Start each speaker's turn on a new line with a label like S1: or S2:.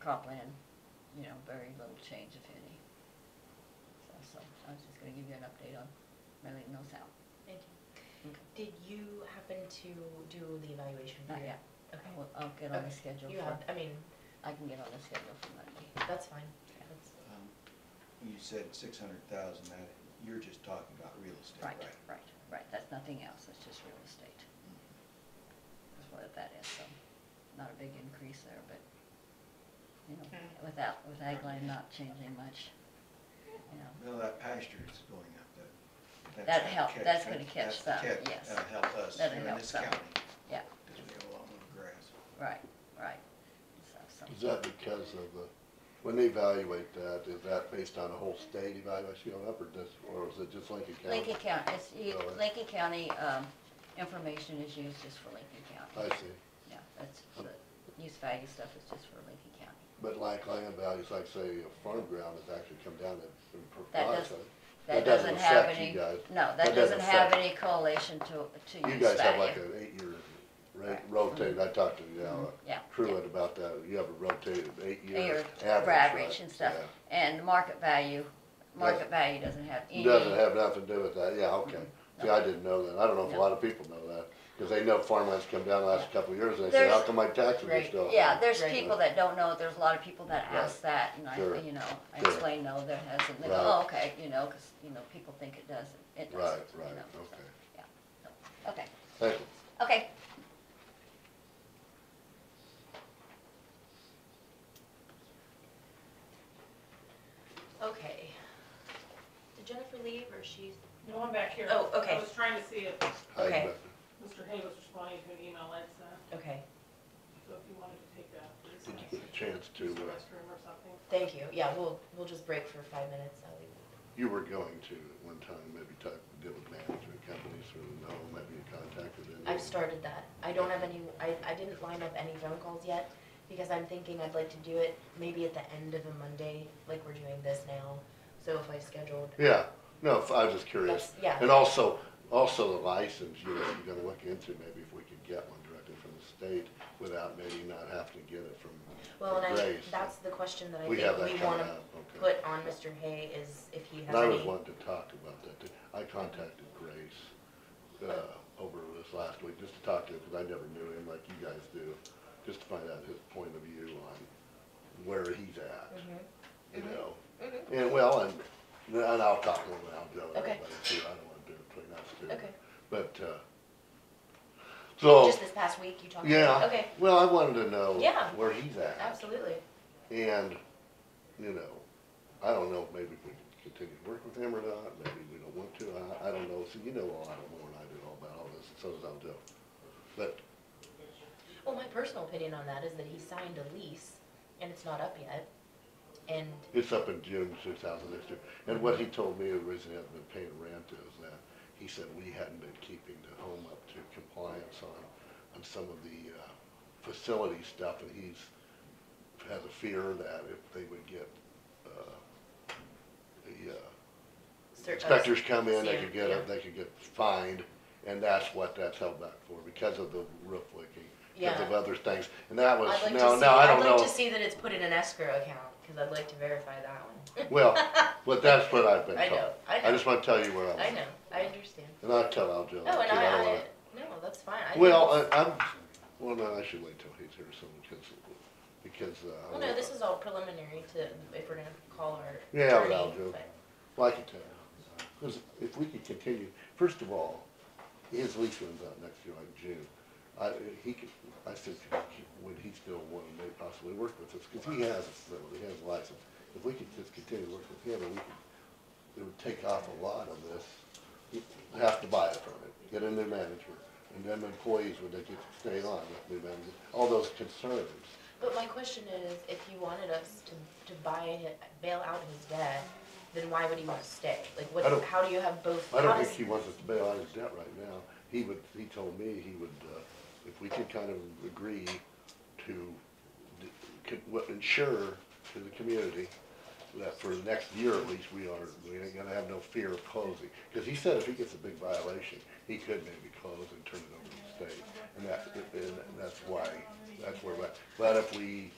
S1: comp plan, you know, very little change if any. So, so I was just gonna give you an update on mailing those out.
S2: Thank you.
S1: Okay.
S2: Did you happen to do the evaluation? for
S1: Not
S2: your-
S1: yet.
S2: Okay.
S1: Well, I'll get on the
S2: Okay.
S1: schedule
S2: You
S1: for,
S2: have, I mean,
S1: I can get on the schedule for Monday.
S2: that's fine.
S1: Yeah.
S2: That's-
S3: Um, You said six hundred thousand, that, you're just talking about real estate,
S1: Right,
S3: right?
S1: right, right, that's nothing else, it's just real estate, is what that is, so, not a big increase there, but, you know,
S2: Mm.
S1: without, with Agline not changing much, you know.
S3: No, Mm-hmm. that pasture is going up, that. that's
S1: That'd
S3: gonna
S1: help,
S3: catch-
S1: that's gonna catch
S3: that's
S1: some,
S3: the catch.
S1: yes.
S3: That'll help us here
S1: That'll
S3: in
S1: help
S3: this
S1: some.
S3: county,
S1: Yeah,
S3: because we have a lot more grass.
S1: right, right, so,
S4: Is
S1: so,
S4: that because of the, when they evaluate that, is that based on the whole state evaluation going up or just, or is it just Lincoln County? Oh,
S1: Lincoln County, it's, you-
S4: Really?
S1: Lincoln County, um, information is used just for Lincoln
S4: I
S1: County.
S4: see,
S1: Yeah, that's, the use value stuff is just for Lincoln County.
S4: but like land values, like say a farm ground has actually come down in, in
S1: That
S4: price.
S1: doesn't-
S4: That
S1: That doesn't
S4: doesn't
S1: have
S4: affect you
S1: any,
S4: guys.
S1: no, that
S4: That
S1: doesn't
S4: doesn't
S1: have
S4: affect-
S1: any correlation to, to
S4: You
S1: use
S4: guys have like
S1: value.
S4: an eight-year ra-
S1: Right. Mm-hmm.
S4: rotate, I talked to, you know,
S1: Yeah.
S4: Truett about that, you have a rotated
S1: Your
S4: eight-year average, right?
S1: average and stuff,
S4: Yeah.
S1: and the market value, market
S4: Doesn't-
S1: value doesn't have any.
S4: Doesn't have nothing to do with that, yeah, okay. See, I didn't know that, I don't know if a
S1: No.
S4: lot of people know that, because they know farmlands come down the last couple of years, and they say,
S1: There's-
S4: how come my taxes are
S2: Right,
S4: still? high?"
S1: Yeah, there's
S2: Right.
S1: people that don't know, there's a lot of people that
S4: Right.
S1: ask that, and I,
S4: Sure.
S1: you know, I
S4: Sure.
S1: explain, no, there hasn't, they go,
S4: Right.
S1: oh, okay, you know, cause, you know, people think it doesn't, it
S4: Right,
S1: doesn't, you
S4: right,
S1: know, so,
S4: okay,
S1: yeah. Okay,
S4: thank you.
S1: okay.
S2: Okay. Did Jennifer leave or she's?
S5: No, I'm back here.
S2: Oh, okay.
S5: I was trying to see if
S4: How you
S2: Okay.
S4: doing?
S5: Mr. Hay was responding to an email I'd sent,
S2: Okay,
S5: so if you wanted to take that. please,
S4: Did
S5: uh,
S4: you get a chance to,
S5: use the
S4: uh,
S5: restroom or something.
S2: thank you. Yeah, we'll, we'll just break for five minutes. I'll leave.
S4: you were going to at one time, maybe talk, deal with management companies, or no, maybe you contacted them?
S2: I've started that. I don't have any, I, I didn't line up any phone calls yet because I'm thinking I'd like to do it maybe at the end of a Monday, like we're doing this now. So if I scheduled,
S4: Yeah, no, if- I was just curious.
S2: that's, yeah.
S4: And also, also the license, you know, you're gonna look into maybe if we could get one directly from the state without maybe not having to get it from
S2: Well,
S4: from
S2: and I,
S4: Grace.
S2: that's the question that I
S4: We have
S2: think
S4: that
S2: we
S4: coming
S2: wanna
S4: up, okay.
S2: put on Mr. Hay is if he has
S4: And I was
S2: any,
S4: wanting to talk about that, too. I contacted Grace, uh, over this last week, just to talk to him, because I never knew him like you guys do, just to find out his point of view on where he's at,
S2: Mm-hmm.
S4: you know? And, well, and, and I'll talk to him, and I'll tell
S2: Okay.
S4: everybody too, I don't wanna do it between us two.
S2: Okay.
S4: But, uh, so,
S2: just this past week you talked about,
S4: yeah,
S2: okay,
S4: well, I wanted to know
S2: Yeah.
S4: where he's at.
S2: absolutely.
S4: And, you know, I don't know, if maybe we can continue to work with him or not, maybe we don't want to, I, I don't know, so you know a lot more than I do all about all this, and so does Aldo. But,
S2: Well, my personal opinion on that is that he signed a lease and it's not up yet. And,
S4: It's up in June two thousand sixteen, and what he told me originally hadn't been paying rent is that, he said we hadn't been keeping the home up to compliance on, on some of the, uh, facility stuff, and he's, has a fear that if they would get, uh, the, uh,
S2: cer- uh,
S4: inspectors come in, they could
S2: Yeah,
S4: get,
S2: yeah.
S4: a- they could get fined, and that's what that's held back for, because of the roof leaking, because
S2: Yeah.
S4: of other things, and that was,
S2: I'd like to
S4: now,
S2: see,
S4: now, I
S2: I'd
S4: don't
S2: like to
S4: know,
S2: see that it's put in an escrow account, cause I'd like to verify that one.
S4: well, but that's what I've been
S2: I
S4: told.
S2: know, I
S4: I
S2: know,
S4: just wanna tell you where I'm
S2: I know, I understand.
S4: and I'll tell Al Jones,
S2: No, and
S4: too,
S2: I,
S4: I don't
S2: I,
S4: wanna-
S2: no, that's fine. I think
S4: well, uh,
S2: it's-
S4: I, I'm, well, no, I should wait till he's here soon, because, because, uh.
S2: Well, no, this is all preliminary to, if we're gonna call our
S4: Yeah, but
S2: attorney,
S4: I'll do.
S2: but-
S4: Like it, because if we could continue, first of all, his lease runs out next year, like June. I, he could, I said, would he still want to maybe possibly work with us? Because he has a facility, he has a license. If we could just continue to work with him, and we could, it would take off a lot of this. You'd Have to buy it from it, get a new manager, and then employees would they get to stay on with new manager, all those concerns.
S2: But my question is, if you wanted us to, to buy, hi- bail out his debt, then why would he want to stay? Like,
S4: I don't-
S2: what, how do you have both?
S4: I
S2: how
S4: don't
S2: does-
S4: think he wants us to bail out his debt right now. He would, he told me he would, uh, if we could kind of agree to, d- could, what, ensure to the community that for the next year at least, we are, we ain't gonna have no fear of closing. Cause he said if he gets a big violation, he could maybe close and turn it over to the state. And that's, and that's why, that's where, we're at. but if we